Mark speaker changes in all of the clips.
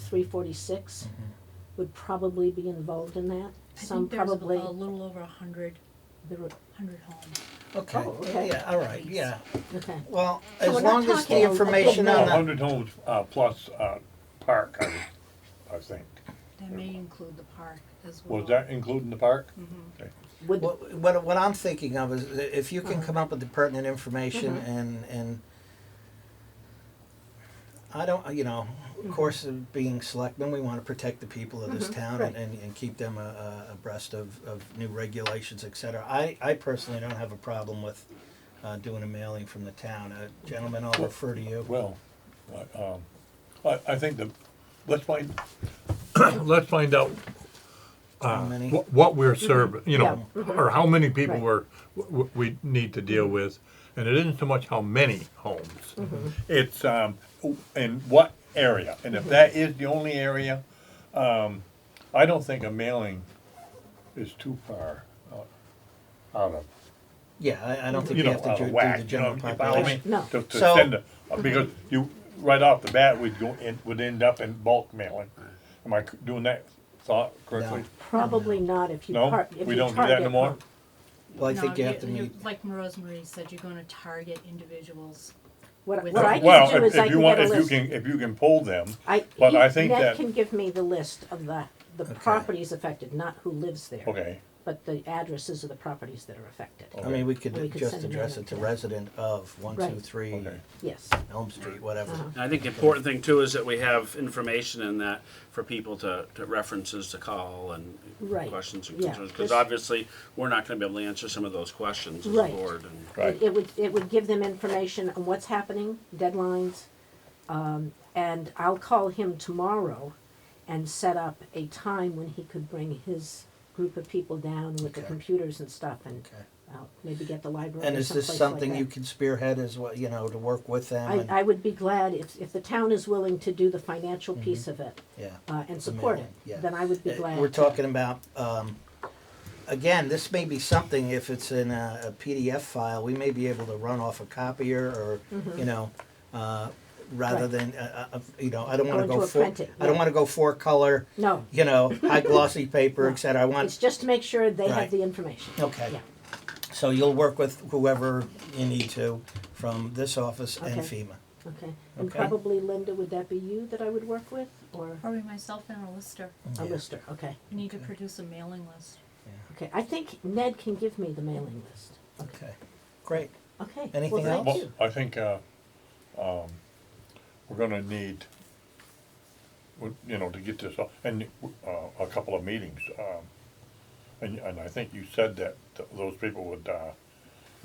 Speaker 1: three forty-six
Speaker 2: Mm-hmm.
Speaker 1: would probably be involved in that. Some probably,
Speaker 3: I think there's a little over a hundred,
Speaker 1: there were-
Speaker 3: hundred homes.
Speaker 4: Okay,
Speaker 1: Oh, okay.
Speaker 4: yeah, all right, yeah.
Speaker 1: okay,
Speaker 4: Well,
Speaker 1: So
Speaker 4: as
Speaker 1: we're not
Speaker 4: long as
Speaker 1: talking
Speaker 4: the
Speaker 1: a- a
Speaker 4: information
Speaker 1: big
Speaker 4: on
Speaker 1: map.
Speaker 4: the,
Speaker 2: Hundred homes, uh, plus, uh, park, I, would- I think.
Speaker 3: That may include the park as well.
Speaker 2: Was that including the park?
Speaker 4: Mm-hmm.
Speaker 1: would,
Speaker 4: what, what what I'm thinking of is i- if you
Speaker 1: Uh-huh.
Speaker 4: can come up with the pertinent information
Speaker 1: Mm-hmm.
Speaker 4: and, and I don't, you know,
Speaker 1: Mm-hmm.
Speaker 4: of course, uh, being selectmen, we want to protect the people of this town and,
Speaker 1: right.
Speaker 4: and, and keep them uh, uh, abreast of, of new regulations, et cetera. I, I personally don't have a problem with uh, doing a mailing from the town. Uh, Gentlemen, I'll refer to you.
Speaker 2: Well, I, um, I, I think the, let's find, let's find out uh,
Speaker 4: How many?
Speaker 2: what, what we're
Speaker 4: Mm-hmm.
Speaker 2: serving, you know, or how many people
Speaker 1: Right.
Speaker 2: we're, w- we need to
Speaker 4: Mm-hmm.
Speaker 2: deal with. And it isn't so much how many homes, it's, um, w- in what area. And
Speaker 4: Mm-hmm.
Speaker 2: if that is the only area, um, I don't think a mailing is too far uh, out of
Speaker 4: Yeah, I, I don't think you
Speaker 2: you know,
Speaker 4: have to
Speaker 2: out
Speaker 4: do
Speaker 2: of
Speaker 4: do the
Speaker 2: whack, you know,
Speaker 4: general
Speaker 2: you follow me?
Speaker 4: population.
Speaker 1: No.
Speaker 2: To, to
Speaker 4: So-
Speaker 2: send a, because you, right off the bat, we'd go in, would end up in bulk mailing. Am I c- doing that thought correctly?
Speaker 1: probably not if you
Speaker 2: No?
Speaker 1: par- if you target.
Speaker 2: We don't do that no more?
Speaker 4: Well, I
Speaker 3: No,
Speaker 4: think you have to
Speaker 3: you-
Speaker 4: meet.
Speaker 3: Like Rosemarie said, you're gonna target individuals.
Speaker 1: What,
Speaker 3: With-
Speaker 1: what I
Speaker 2: Well,
Speaker 1: can do
Speaker 2: if-
Speaker 1: is I
Speaker 2: if you
Speaker 1: can
Speaker 2: want-
Speaker 1: get a
Speaker 2: if you
Speaker 1: list.
Speaker 2: can- If you can pull them,
Speaker 1: I,
Speaker 2: but I
Speaker 1: he-
Speaker 2: think
Speaker 1: Ned
Speaker 2: that-
Speaker 1: can give me the list of the, the properties affected, not who lives there.
Speaker 2: okay,
Speaker 1: But the addresses of the properties that are affected.
Speaker 4: I mean,
Speaker 1: We
Speaker 4: we could
Speaker 1: could
Speaker 4: just
Speaker 1: send them
Speaker 4: address
Speaker 1: out
Speaker 4: it to
Speaker 1: to them.
Speaker 4: resident of one, two,
Speaker 1: Right.
Speaker 4: three
Speaker 2: okay.
Speaker 1: Yes,
Speaker 4: Elm Street, whatever.
Speaker 1: Uh-huh.
Speaker 5: I think the important thing too is that we have information in that for people to, to references to call and
Speaker 1: Right.
Speaker 5: questions and
Speaker 1: Yeah.
Speaker 5: concerns.
Speaker 1: This-
Speaker 5: Because obviously, we're not gonna be able to answer some of those questions as a
Speaker 1: Right.
Speaker 5: board. and-
Speaker 2: Right.
Speaker 1: It- It would, it would give them information on what's happening, deadlines. Um, and I'll call him tomorrow and set up a time when he could bring his group of people down with the
Speaker 4: Okay.
Speaker 1: computers and stuff and
Speaker 4: Okay.
Speaker 1: uh, maybe get the library
Speaker 4: And
Speaker 1: or
Speaker 4: is this
Speaker 1: someplace like
Speaker 4: something
Speaker 1: that.
Speaker 4: you can spearhead as well, you know, to work with them? and-
Speaker 1: I, I would be glad if, if the town is willing to do the financial piece of it,
Speaker 4: Yeah.
Speaker 1: uh, and support it,
Speaker 4: mailing, Mm-hmm. yeah.
Speaker 1: then I would be
Speaker 4: Uh,
Speaker 1: glad.
Speaker 4: We're
Speaker 1: to.
Speaker 4: talking about, um, again, this may be something, if it's in a a PDF file, we may be able to run off a copier or, you know, uh, rather
Speaker 1: Mm-hmm. Right.
Speaker 4: than, uh, uh, you know, I don't wanna
Speaker 1: Going to
Speaker 4: go
Speaker 1: a
Speaker 4: four,
Speaker 1: printed,
Speaker 4: I don't
Speaker 1: yeah.
Speaker 4: wanna go four color,
Speaker 1: No,
Speaker 4: you know, high glossy paper, et cetera. I
Speaker 1: it's
Speaker 4: want,
Speaker 1: just to make sure they have
Speaker 4: Right.
Speaker 1: the information.
Speaker 4: okay.
Speaker 1: Yeah.
Speaker 4: So you'll work with whoever you need to from this office and
Speaker 1: Okay.
Speaker 4: FEMA.
Speaker 1: Okay, and
Speaker 4: Okay.
Speaker 1: probably Linda, would that be you that I would work with, or
Speaker 3: Probably myself and a lister.
Speaker 1: a
Speaker 4: Yeah.
Speaker 1: lister, okay,
Speaker 3: You need to produce a mailing list.
Speaker 1: okay, I think Ned can give me the mailing list,
Speaker 4: Okay, great.
Speaker 1: okay.
Speaker 4: Anything
Speaker 1: well,
Speaker 4: else?
Speaker 1: thank
Speaker 2: Well,
Speaker 1: you.
Speaker 2: I think, uh, um, we're gonna need, we- you know, to get this, off- and, uh, a couple of meetings, um, and, and I think you said that th- those people would, uh,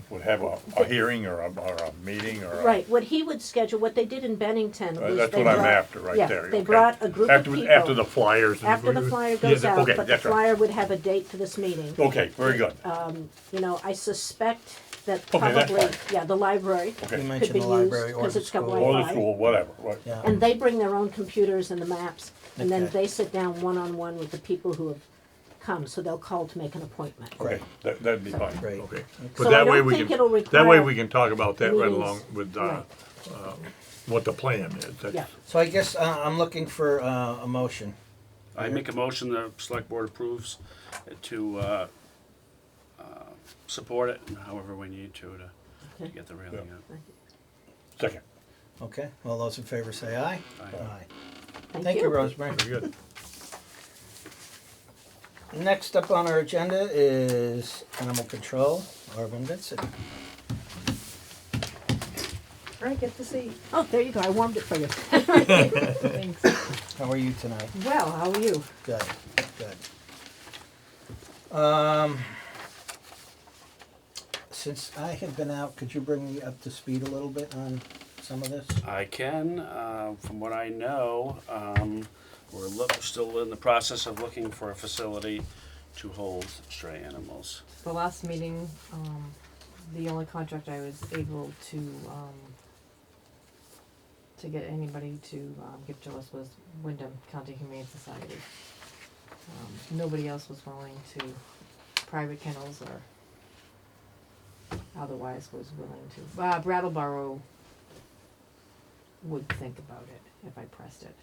Speaker 2: would have a, a hearing or a, or a meeting or a.
Speaker 1: Right, what he would schedule, what they did in Bennington
Speaker 2: Uh,
Speaker 1: was
Speaker 2: That's
Speaker 1: they
Speaker 2: what I'm
Speaker 1: brought-
Speaker 2: after, right
Speaker 1: yeah,
Speaker 2: there.
Speaker 1: they
Speaker 2: okay.
Speaker 1: brought a group of
Speaker 2: After-
Speaker 1: people.
Speaker 2: After the flyers. and-
Speaker 1: After the flyer
Speaker 2: Yeah,
Speaker 1: goes
Speaker 2: that-
Speaker 1: out,
Speaker 2: okay,
Speaker 1: but the
Speaker 2: that's right.
Speaker 1: flyer Uh, would have a date for this meeting.
Speaker 2: Okay, very good,
Speaker 1: You know, I suspect that
Speaker 2: Okay, that's
Speaker 1: probably,
Speaker 2: fine.
Speaker 1: yeah, the library,
Speaker 4: You
Speaker 2: okay.
Speaker 4: mentioned
Speaker 1: be
Speaker 4: the
Speaker 1: used,
Speaker 4: library or
Speaker 1: 'cause
Speaker 4: the
Speaker 1: it's got
Speaker 4: school.
Speaker 2: Or the
Speaker 1: Wi-Fi.
Speaker 2: school, whatever, right.
Speaker 4: Yeah.
Speaker 1: and they bring their own computers and the maps, and then
Speaker 4: Okay.
Speaker 1: they sit down one-on-one with the people who have come, so they'll call to make an appointment.
Speaker 2: Okay, that, that'd be fine,
Speaker 4: Great.
Speaker 2: okay.
Speaker 1: So
Speaker 2: But
Speaker 1: I
Speaker 2: that way
Speaker 1: don't
Speaker 2: we
Speaker 1: think
Speaker 2: can,
Speaker 1: it'll
Speaker 2: that way
Speaker 1: require
Speaker 2: we can talk about that right
Speaker 1: meetings.
Speaker 2: along with, uh,
Speaker 1: Right.
Speaker 2: uh, what the plan is. That's-
Speaker 1: Yeah.
Speaker 4: So I guess uh, I'm looking for uh, a motion.
Speaker 5: I make a motion the select board approves to, uh, uh, support it however we need to, to- to
Speaker 1: Okay.
Speaker 5: get the railing up.
Speaker 2: Second,
Speaker 4: Okay, all those in favor say aye.
Speaker 5: Aye.
Speaker 4: Thank you, Rosemary.
Speaker 2: very good.
Speaker 4: Next up on our agenda is Animal Control, Arvin Vincent.
Speaker 6: Right, get to see.
Speaker 1: Oh, there you go, I warmed it for you.
Speaker 6: Thanks.
Speaker 4: How are you tonight?
Speaker 1: Well, how are you?
Speaker 4: Good, good. Um, since I have been out, could you bring me up to speed a little bit on some of this?
Speaker 5: I can, uh, from what I know, um, we're look, still in the process of looking for a facility to hold stray animals.
Speaker 6: The last meeting, um, the only contract I was able to, um, to get anybody to, um, give to us was Wyndham County Humane Society. Um, nobody else was willing to, private kennels or otherwise was willing to. Uh, Brattleboro would think about it if I pressed it.